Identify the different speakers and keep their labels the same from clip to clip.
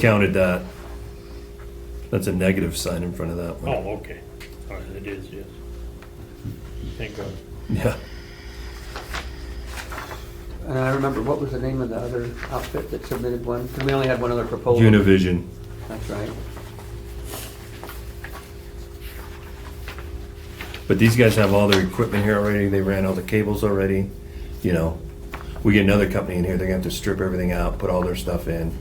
Speaker 1: counted that. That's a negative sign in front of that one.
Speaker 2: Oh, okay. All right, it is, yes. Thank God.
Speaker 1: Yeah.
Speaker 3: And I remember, what was the name of the other outfit that submitted one? 'Cause we only had one other proposal.
Speaker 1: Univision.
Speaker 3: That's right.
Speaker 1: But these guys have all their equipment here already. They ran all the cables already. You know, we get another company in here, they're gonna have to strip everything out, put all their stuff in.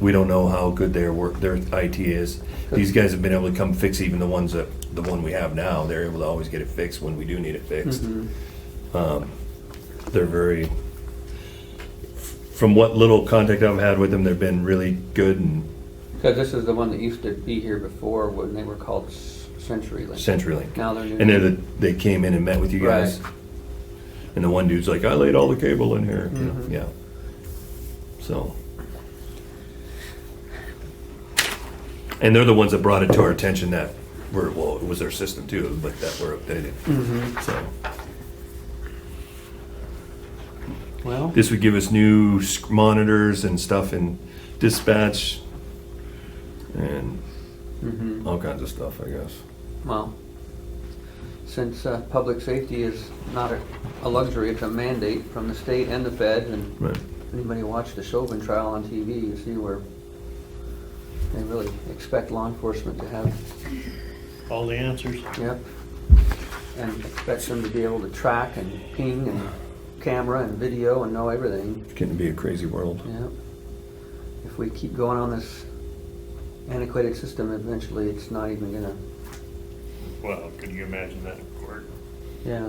Speaker 1: We don't know how good their work, their IT is. These guys have been able to come fix even the ones that, the one we have now. They're able to always get it fixed when we do need it fixed. Um, They're very, from what little contact I've had with them, they've been really good and
Speaker 3: Because this is the one that used to be here before when they were called S- CenturyLink.
Speaker 1: CenturyLink.
Speaker 3: Now they're new.
Speaker 1: And they're the, they came in and met with you guys.
Speaker 3: Right.
Speaker 1: And the one dude's like, I laid all the cable in here, you know,
Speaker 3: Mhm.
Speaker 1: yeah. So. And they're the ones that brought it to our attention that were, well, it was their system too, but that were updated. So
Speaker 3: Well,
Speaker 1: this would give us new sc- monitors and stuff and dispatch and
Speaker 3: mhm.
Speaker 1: all kinds of stuff, I guess.
Speaker 3: well, since uh, public safety is not a- a luxury, it's a mandate from the state and the fed. And
Speaker 1: Right.
Speaker 3: anybody watch the Chauvin trial on TV, you see where they really expect law enforcement to have
Speaker 2: All the answers?
Speaker 3: Yep. And expect them to be able to track and ping and camera and video and know everything.
Speaker 1: It's getting to be a crazy world.
Speaker 3: Yep. If we keep going on this antiquated system, eventually it's not even gonna,
Speaker 2: Well, could you imagine that in court?
Speaker 3: yeah.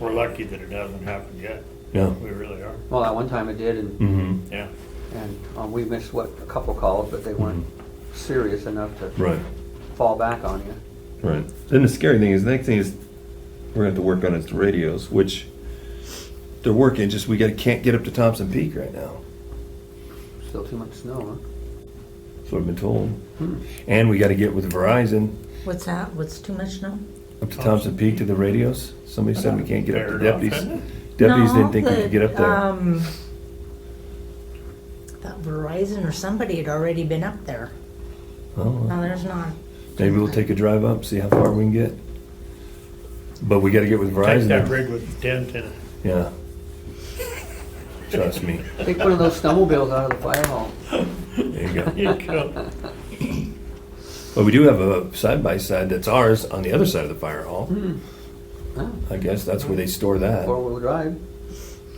Speaker 2: We're lucky that it hasn't happened yet.
Speaker 1: Yeah.
Speaker 2: We really are,
Speaker 3: Well, at one time it did and,
Speaker 1: Mm-hmm.
Speaker 2: yeah.
Speaker 3: and um, we missed what, a couple calls, but they weren't serious enough to
Speaker 1: Mm-hmm. Right.
Speaker 3: fall back on you.
Speaker 1: Right. Then Mm. the scary thing is, the next thing is, we're gonna have to work on is the radios, which they're working, just we gotta, can't get up to Thompson Peak right now.
Speaker 3: Still too much snow, huh?
Speaker 1: That's what I've been told.
Speaker 2: Hmm.
Speaker 1: And we gotta get with Verizon
Speaker 4: What's that? What's too much now?
Speaker 1: up to Thompson Peak to the radios. Somebody said we can't get up to
Speaker 2: Fair
Speaker 1: deputies.
Speaker 2: enough.
Speaker 1: Deputies
Speaker 4: No,
Speaker 1: didn't think we could get up
Speaker 4: the,
Speaker 1: there.
Speaker 4: Um, I thought Verizon or somebody had already been up there.
Speaker 1: Oh,
Speaker 4: No, there's not.
Speaker 1: Maybe we'll take a drive up, see how far we can get. But we gotta get with
Speaker 2: Take that
Speaker 1: Verizon.
Speaker 2: rig with the tent in it.
Speaker 1: Yeah. Trust me.
Speaker 3: Take one of those snowmobiles out of the fire hall.
Speaker 1: There you go.
Speaker 2: You go.
Speaker 1: But we do have a side by side that's ours on the other side of the fire hall.
Speaker 3: Oh,
Speaker 1: I guess that's where they store that.
Speaker 3: Four-wheel drive.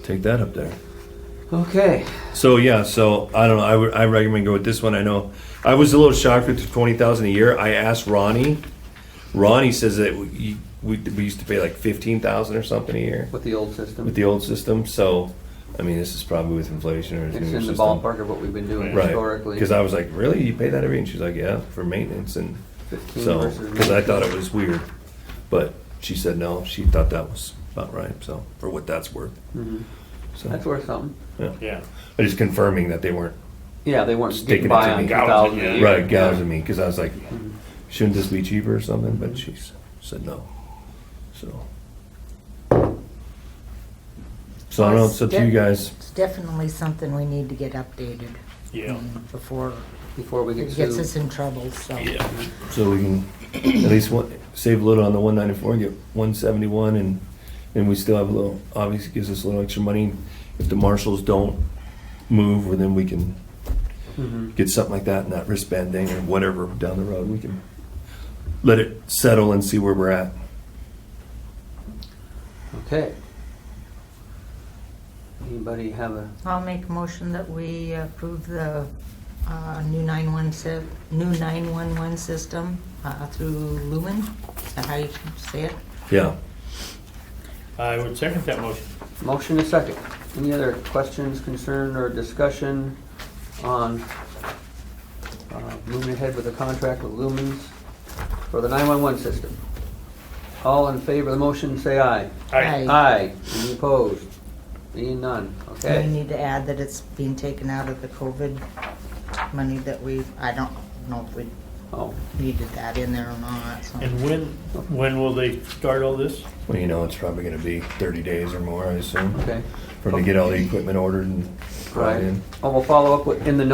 Speaker 1: Take that up there.
Speaker 3: Okay,
Speaker 1: So yeah, so I don't know. I would I recommend go with this one. I know I was a little shocked with the twenty thousand a year. I asked Ronnie. Ronnie says that we we, we used to pay like fifteen thousand or something a year
Speaker 3: with the old system.
Speaker 1: with the old system. So I mean, this is probably with inflation or
Speaker 3: It's in the ballpark of what we've been doing
Speaker 1: right?
Speaker 3: historically.
Speaker 1: Because I was like, really, you pay that every? And she's like, yeah, for maintenance and
Speaker 3: 15
Speaker 1: so
Speaker 3: versus
Speaker 1: because I
Speaker 3: 19.
Speaker 1: thought it was weird, but she said no. She thought that was about right. So for what that's worth,
Speaker 3: Mhm.
Speaker 1: so
Speaker 3: That's worth something.
Speaker 1: yeah.
Speaker 2: Yeah,
Speaker 1: I just confirming that they weren't
Speaker 3: Yeah, they weren't
Speaker 1: Sticking
Speaker 3: getting
Speaker 1: it
Speaker 3: by
Speaker 1: to
Speaker 3: on
Speaker 1: me.
Speaker 3: two thousand
Speaker 2: Gouging,
Speaker 3: a
Speaker 2: yeah.
Speaker 3: year.
Speaker 1: Right, gouging me, because I was like, shouldn't this be cheaper or something? But she s- said no. So. So I don't know, it's up to you guys.
Speaker 4: It's definitely something we need to get updated
Speaker 2: yeah.
Speaker 4: mm, before
Speaker 3: Before we get
Speaker 4: it gets
Speaker 3: sued.
Speaker 4: us in trouble, so.
Speaker 1: So we can at least one, save a little on the one ninety-four, get one seventy-one and, and we still have a little, obviously gives us a little extra money. If the marshals don't move, well, then we can
Speaker 3: Mhm.
Speaker 1: get something like that and that wristband thing or whatever down the road. We can let it settle and see where we're at.
Speaker 3: Okay. Anybody have a,
Speaker 4: I'll make a motion that we approve the uh, new 911, sy- new 911 system uh, through Lumen. Is that how you say it?
Speaker 1: Yeah.
Speaker 2: I would second that motion.
Speaker 3: motion and a second? Any other questions, concern, or discussion on uh, moving ahead with the contract with Lumens for the nine-one-one system? All in favor of the motion, say aye.
Speaker 2: I,
Speaker 4: Aye.
Speaker 3: Aye. Any opposed? Being none,
Speaker 4: We
Speaker 3: okay.
Speaker 4: need to add that it's being taken out of the COVID money that we, I don't know if we
Speaker 3: Oh,
Speaker 4: needed that in there or not, so.
Speaker 2: And when, when will they start all this?
Speaker 1: Well, you know, it's probably gonna be thirty days or more, I assume,
Speaker 3: okay.
Speaker 1: for them to get all the equipment ordered and brought
Speaker 3: Right.
Speaker 1: in.
Speaker 3: Oh, we'll follow up with- in the